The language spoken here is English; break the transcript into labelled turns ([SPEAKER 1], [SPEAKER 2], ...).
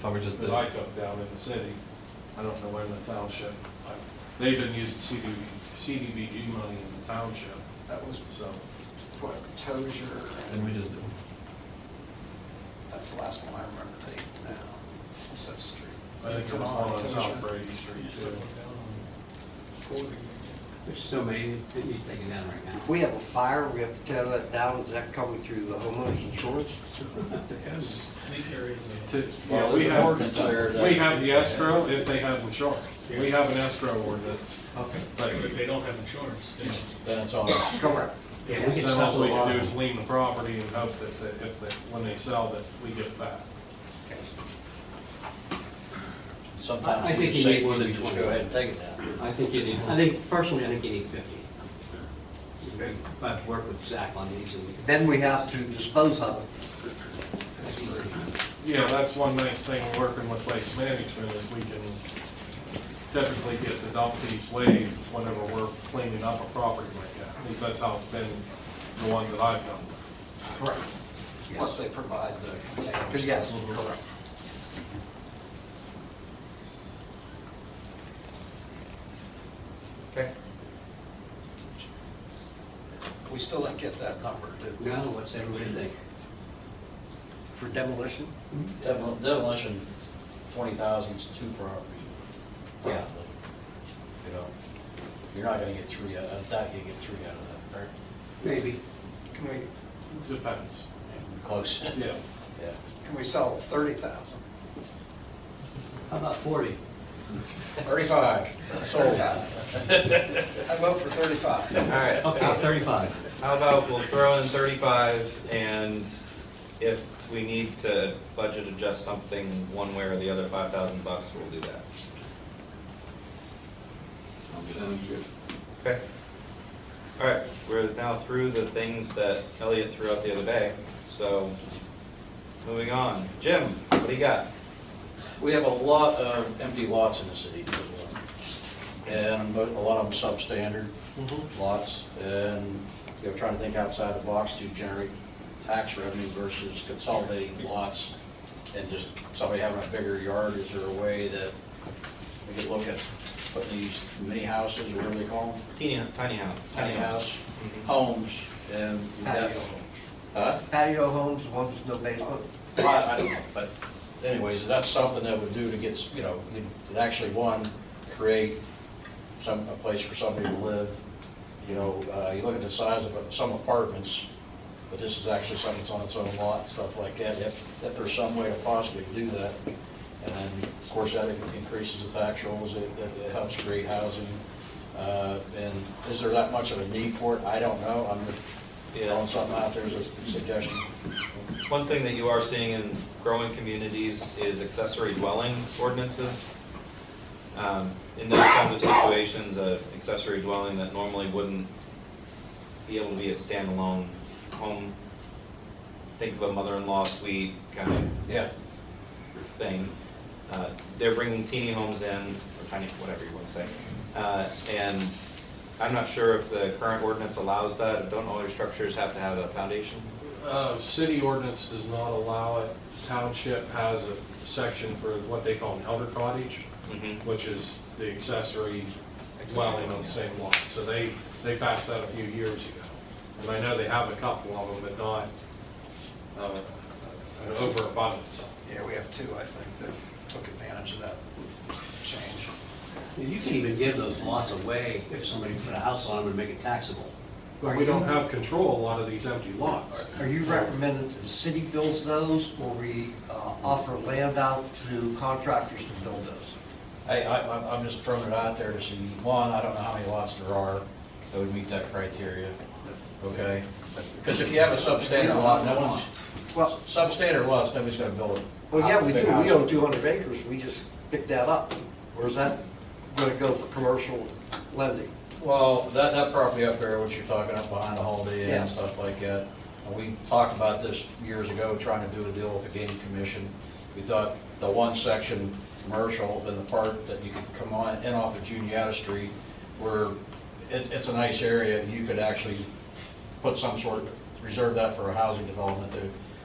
[SPEAKER 1] Thought we just did.
[SPEAKER 2] that I took down in the city. I don't know where in the township. I- They've been using CDB, CDBG money in the township,
[SPEAKER 3] That was
[SPEAKER 2] so.
[SPEAKER 3] what, Tozier,
[SPEAKER 1] Didn't
[SPEAKER 3] and
[SPEAKER 1] we just do?
[SPEAKER 3] that's the last one I remember taking now. What's that street?
[SPEAKER 2] I think it was one on South Brady Street too.
[SPEAKER 4] There's so many that need taken down right
[SPEAKER 5] If
[SPEAKER 4] now.
[SPEAKER 5] we have a fire, we have to tear that down, is that coming through the homeowner's insurance?
[SPEAKER 2] Yes. To-
[SPEAKER 6] Well,
[SPEAKER 2] Yeah, we
[SPEAKER 6] there's an ordinance there
[SPEAKER 2] have,
[SPEAKER 6] that-
[SPEAKER 2] we have the escrow if they have insurance. We have an escrow ordinance.
[SPEAKER 5] Okay.
[SPEAKER 2] but
[SPEAKER 7] If they don't have insurance, then
[SPEAKER 6] Then it's on us.
[SPEAKER 5] Correct.
[SPEAKER 7] Yeah, we
[SPEAKER 2] Then
[SPEAKER 7] can
[SPEAKER 2] all
[SPEAKER 7] settle
[SPEAKER 2] we
[SPEAKER 7] it
[SPEAKER 2] can do
[SPEAKER 7] on.
[SPEAKER 2] is lean the property and hope that, that if, that when they sell, that we get it back.
[SPEAKER 4] I- I
[SPEAKER 6] Sometimes
[SPEAKER 4] think
[SPEAKER 6] it's
[SPEAKER 4] you need
[SPEAKER 6] safer
[SPEAKER 4] to
[SPEAKER 6] than
[SPEAKER 4] be
[SPEAKER 6] just
[SPEAKER 4] twenty.
[SPEAKER 6] go ahead and take it down.
[SPEAKER 4] I think you need, I think, personally, I think you need fifty. I have to work with Zach on these and.
[SPEAKER 5] Then we have to dispose of it.
[SPEAKER 4] that's easy.
[SPEAKER 2] Yeah, that's one nice thing working with waste management is we can typically get the dump fees waived whenever we're cleaning up a property like that. At least that's how it's been, the ones that I've done.
[SPEAKER 5] Correct.
[SPEAKER 3] Plus they provide the containers.
[SPEAKER 5] Because yes, correct.
[SPEAKER 1] Okay.
[SPEAKER 3] We still didn't get that number, did we?
[SPEAKER 4] Now, what's everybody think?
[SPEAKER 5] For demolition?
[SPEAKER 6] Demol- Demolition, twenty thousand's two properties.
[SPEAKER 4] Yeah.
[SPEAKER 6] probably. You know, you're not gonna get three, out- I doubt you get three out of that, right?
[SPEAKER 4] Maybe.
[SPEAKER 3] Can we,
[SPEAKER 2] Depends,
[SPEAKER 6] Close.
[SPEAKER 2] yeah.
[SPEAKER 6] Yeah.
[SPEAKER 3] can we sell thirty thousand?
[SPEAKER 4] How about forty?
[SPEAKER 6] Thirty-five, sold.
[SPEAKER 3] I vote for thirty-five.
[SPEAKER 8] All right,
[SPEAKER 4] Okay, thirty-five.
[SPEAKER 8] how about we'll throw in thirty-five, and if we need to budget adjust something one way or the other, five thousand bucks, we'll do that. Okay. All right, we're now through the things that Elliot threw out the other day, so moving on. Jim, what do you got?
[SPEAKER 6] We have a lot of empty lots in the city, and mo- a lot of them substandard lots, and, you know, trying to think outside the box to generate tax revenue versus consolidating lots, and just somebody having a bigger yard, is there a way that we could look at putting these mini houses, or whatever they call them,
[SPEAKER 8] Teeny, tiny house.
[SPEAKER 6] tiny house, homes, and.
[SPEAKER 5] Patio homes.
[SPEAKER 6] Huh?
[SPEAKER 5] Patio homes, ones with no basement?
[SPEAKER 6] Well, I I don't know, but anyways, is that something that would do to get, s- you know, it it actually, one, create some, a place for somebody to live? You know, uh, you look at the size of some apartments, but this is actually something that's on its own lot, stuff like that. If, if there's some way to possibly do that, and then, of course, that increases the tax rolls, it, it it helps create housing. Uh, And is there that much of a need for it? I don't know, I'm just throwing something out there as a suggestion.
[SPEAKER 8] One thing that you are seeing in growing communities is accessory dwelling ordinances. Um, In those kinds of situations, a accessory dwelling that normally wouldn't be able to be a standalone home, think of a mother-in-law suite kind of
[SPEAKER 6] Yeah.
[SPEAKER 8] thing. Uh, They're bringing teeny homes in, or tiny, whatever you want to say. Uh, And I'm not sure if the current ordinance allows that. Don't all your structures have to have a foundation?
[SPEAKER 2] Uh, City ordinance does not allow it. Township has a section for what they call an elder cottage,
[SPEAKER 8] Mhm.
[SPEAKER 2] which is the Mm-hmm. accessory dwelling on the same lot. So they, they passed that a few years ago. And I know they have a couple of them, but not uh, an overabundance of them.
[SPEAKER 3] Yeah, we have two, I think, that took advantage of that change.
[SPEAKER 4] You can even give those lots away if somebody put a house on them and make it taxable.
[SPEAKER 2] But we don't have control of a lot of these empty lots.
[SPEAKER 5] Are you recommending that the city builds those, or we uh, offer land out to contractors to build those?
[SPEAKER 6] I, I, I'm- I'm just throwing it out there to see, one, I don't know how many lots there are that would meet that criteria, okay? Because if you have a substandard lot, no one's,
[SPEAKER 5] Well,
[SPEAKER 6] substandard lots, nobody's gonna build it.
[SPEAKER 5] well, yeah, we do, we own 200 acres, we just picked that up. Or is that going to go for commercial lending?
[SPEAKER 6] Well, that, that property up there, what you're talking up behind the Holiday Inn
[SPEAKER 5] Yeah.
[SPEAKER 6] and stuff like that, and we talked about this years ago, trying to do a deal with the gaming commission. We thought the one section commercial in the park that you could come on in off of Juniata Street, where it, it's a nice area, you could actually put some sort, reserve that for a housing development to